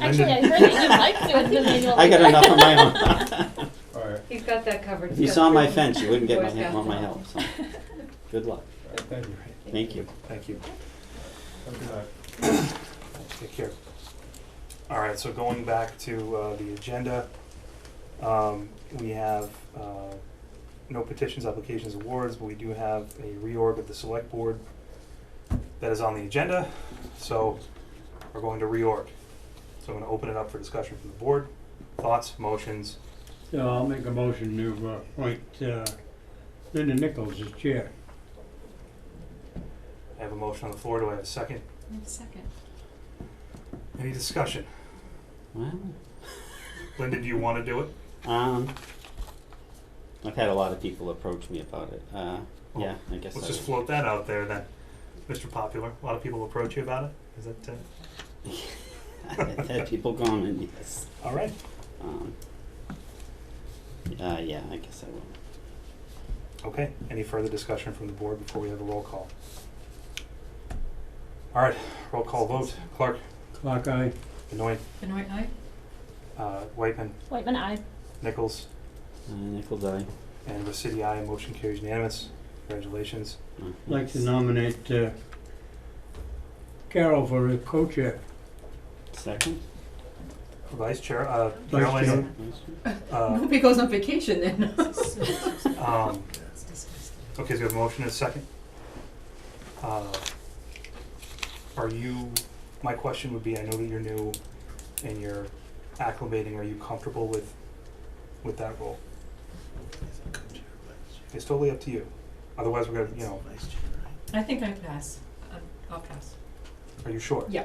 Actually, I heard that you like doing the manual. I got enough of my own. All right, He's got that covered. If He's you got saw my three fence, you wouldn't get Boy my, he- Scouts want my and all. help, so, good luck, all right, thank you. Thank thank you. you. Have a good night. Take care. All right, so going back to uh, the agenda, um, we have uh, no petitions, applications, awards, but we do have a reorg of the select board that is on the agenda, so we're going to reorg. So I'm going to open it up for discussion from the board. Thoughts, motions? So I'll make a motion to uh, appoint uh, Linda Nichols as chair. I have a motion on the floor. Do I have a second? Second. Any discussion? Well, Linda, do you want to do it? Um, I've had a lot of people approach me about it, uh, yeah, I guess Let's I just would. float that out there then. Mr. Popular, a lot of people approach you about it. Is that, uh, I've had people comment, yes, all right? um, uh, yeah, I guess I will. Okay, any further discussion from the board before we have a roll call? All right, roll call vote. Clark, Clock eye, Benoit, Benoit Eye? uh, Whitman, Whitman, I. Nichols, Uh, Nichols, aye. and Resity, aye. Motion carries unanimous. Congratulations. Uh, like to nominate uh, Carol for a co-chair. Second? Vice Chair, uh, Vice Caroline, uh, Nobody goes on vacation then. um, okay, so we have a motion and a second. Uh, Are you, my question would be, I know that you're new and you're acclimating, are you comfortable with, with that role? It's totally up to you. Otherwise, we're gonna, you know, I think I pass. Uh, I'll pass. are you sure? Yeah.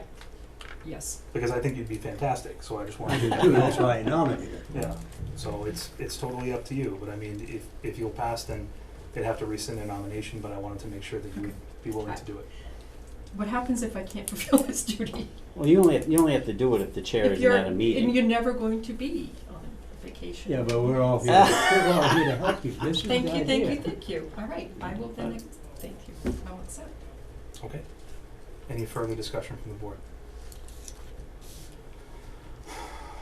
Yes. Because I think you'd be fantastic, so I just I wanted do to. too, that's why I nominated her. Yeah, so it's, it's totally up to you, but I mean, if, if you'll pass, then they'd have to rescind their nomination, but I wanted to make sure that you would be willing to do it. What happens if I can't fulfill this duty? Well, you only, you only have to do it if the chair If isn't you're, at a and meeting. you're never going to be on vacation. Ah, Yeah, but we're all here, we're all here to help you, this is the Thank idea. you, thank you, thank you. All right, I will then, ex- thank you. I'll accept. Okay. Any further discussion from the board?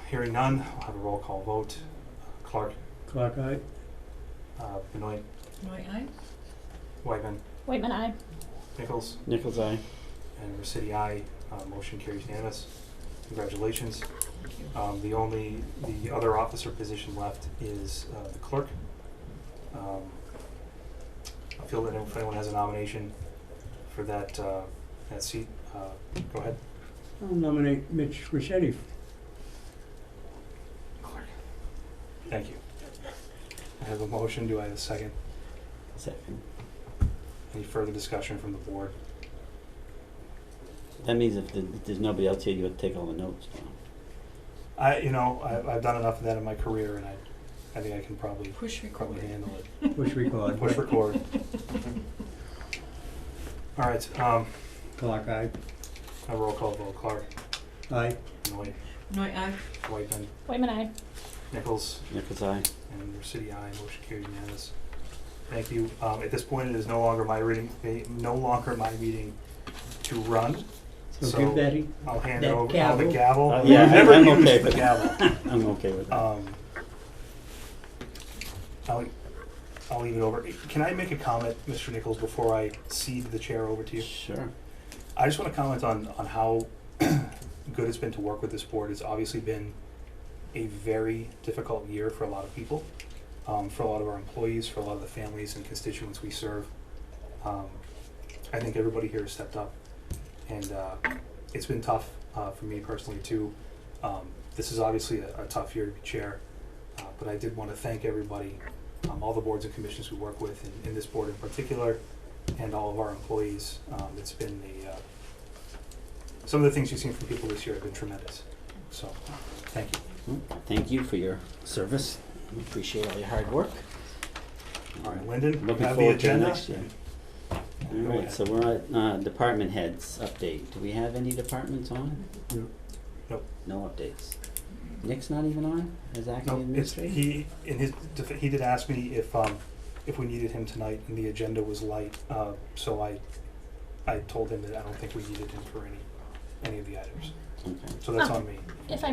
Hearing none, I'll have a roll call vote. Clark, Clock eye, uh, Benoit, Benoit Eye? Whitman, Whitman, I. Nichols, Nichols, aye. and Resity, aye. Uh, motion carries unanimous. Congratulations. Thank you. Um, the only, the other officer position left is, uh, the clerk. Um, I feel that if anyone has a nomination for that, uh, that seat, uh, go ahead. I'll nominate Mitch Rossetti. Clerk. Thank you. I have a motion, do I have a second? Second. Any further discussion from the board? That means if, the, if there's nobody else here, you have to take all the notes down. I, you know, I, I've done enough of that in my career and I, I think I can probably, Push record. probably handle it. Push record. Push record. All right, um, Clock eye, a roll call vote, Clark, aye, Benoit, Benoit Eye? Whitman, Whitman, I. Nichols, Nichols, aye. and your city aye, motion carried unanimous. Thank you. Um, at this point, it is no longer my reading, eh, no longer my meeting to run. so give Betty, I'll hand it That over, oh, the gavel. gavel. Uh, yeah, We've never I'm used okay the with- gavel. I'm okay with that. Um, I'll, I'll leave it over. Can I make a comment, Mr. Nichols, before I cede the chair over to you? Sure. I just want to comment on, on how good it's been to work with this board. It's obviously been a very difficult year for a lot of people, um, for a lot of our employees, for a lot of the families and constituents we serve. Um, I think everybody here has stepped up, and uh, it's been tough uh, for me personally too. Um, this is obviously a, a tough year to be chair, uh, but I did want to thank everybody, um, all the boards and commissions we work with, and, and this board in particular, and all of our employees. Um, it's been the uh, some of the things you've seen from people this year have been tremendous. So, thank you. Mm, Thank you for your service. We appreciate all your hard work. All right, Lyndon, you Looking have the forward to the agenda. next year. All Go right, ahead. so we're at uh, department heads update. Do we have any departments on? Nope. Nope. No updates. Nick's not even on as acting No, it's, administrator? he, in his, def- he did ask me if, um, if we needed him tonight, and the agenda was light, uh, so I, I told him that I don't think we needed him for any, any of the items, Okay. so that's Oh. on me. If I